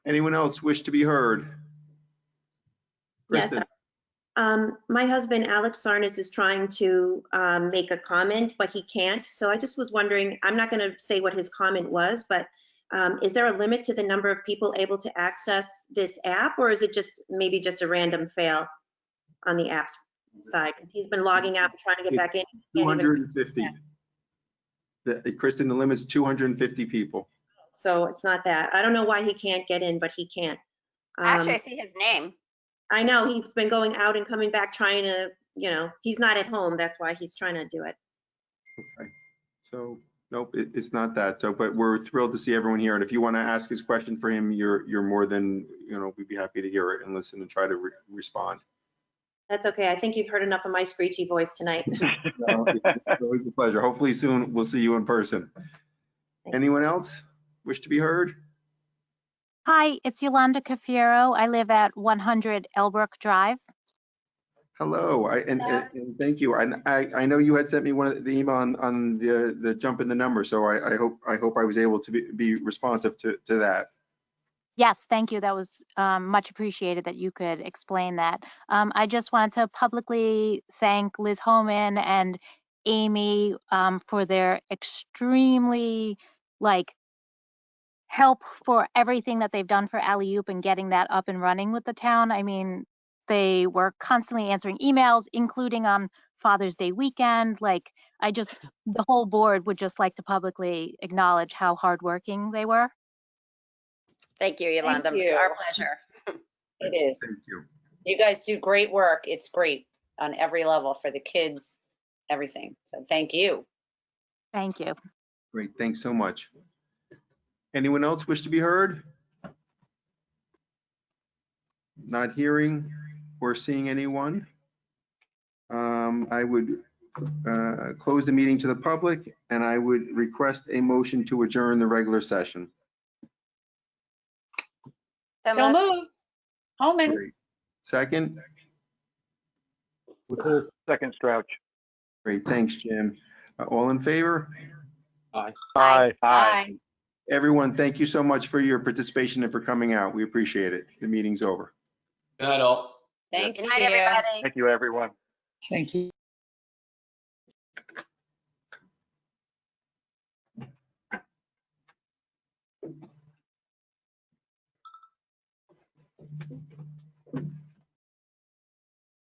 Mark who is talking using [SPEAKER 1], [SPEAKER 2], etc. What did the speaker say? [SPEAKER 1] Anyone else wish to be heard?
[SPEAKER 2] Yes.
[SPEAKER 1] Kristen,
[SPEAKER 2] Um, my husband, Alex Sarnes, is trying to, um, make a comment, but he can't. So I just was wondering, I'm not gonna say what his comment was, but, um, is there a limit to the number of people able to access this app? Or is it just, maybe just a random fail on the app's side? 'Cause He's been logging out, and trying to get back in. He can't even-
[SPEAKER 1] 250. The- Kristen, the limit's 250 people.
[SPEAKER 2] So it's not that. I don't know why he can't get in, but he can't. Um,
[SPEAKER 3] Actually, I see his name.
[SPEAKER 2] I know, he's been going out and coming back trying to, you know, he's not at home, that's why he's trying to do it.
[SPEAKER 1] Okay. So, nope, it, it's not that. So, but we're thrilled to see everyone here. And if you want to ask his question for him, you're, you're more than, you know, we'd be happy to hear it and listen and try to re- respond.
[SPEAKER 2] That's okay, I think you've heard enough of my screechy voice tonight.
[SPEAKER 1] No, It's always a pleasure. Hopefully soon we'll see you in person. Anyone else wish to be heard?
[SPEAKER 4] Hi, it's Yolanda Cafiero. I live at 100 Elbrook Drive.
[SPEAKER 1] Hello, I, and, and, and thank you. And I, I know you had sent me one of the email on, on the, the jump in the number, so I, I hope, I hope I was able to be, be responsive to, to that.
[SPEAKER 4] Yes, thank you. That was um, much appreciated that you could explain that. Um, I just wanted to publicly thank Liz Homan and Amy um, for their extremely like help for everything that they've done for Alley Oop and getting that up and running with the town. I mean, they were constantly answering emails, including on Father's Day weekend. Like, I just, the whole board would just like to publicly acknowledge how hardworking they were.
[SPEAKER 3] Thank you, Yolanda. It's
[SPEAKER 5] you.
[SPEAKER 3] our pleasure.
[SPEAKER 5] It is.
[SPEAKER 1] Thank you.
[SPEAKER 5] You guys do great work. It's great on every level for the kids, everything. So thank you.
[SPEAKER 4] Thank you.
[SPEAKER 1] Great, thanks so much. Anyone else wish to be heard? Not hearing or seeing anyone. Um, I would uh, close the meeting to the public, and I would request a motion to adjourn the regular session.
[SPEAKER 3] So
[SPEAKER 5] Don't
[SPEAKER 3] moved.
[SPEAKER 5] move. Homan.
[SPEAKER 1] Great. Second?
[SPEAKER 6] Second Strouch.
[SPEAKER 1] Great, thanks, Jim. Uh, All in favor?
[SPEAKER 3] Aye.
[SPEAKER 6] Aye.
[SPEAKER 1] Everyone, thank you so much for your participation and for coming out. We appreciate it. The meeting's over.
[SPEAKER 7] Good night, all.
[SPEAKER 5] Thank
[SPEAKER 3] Good night,
[SPEAKER 5] you.
[SPEAKER 3] everybody.
[SPEAKER 6] Thank you, everyone.
[SPEAKER 8] Thank you.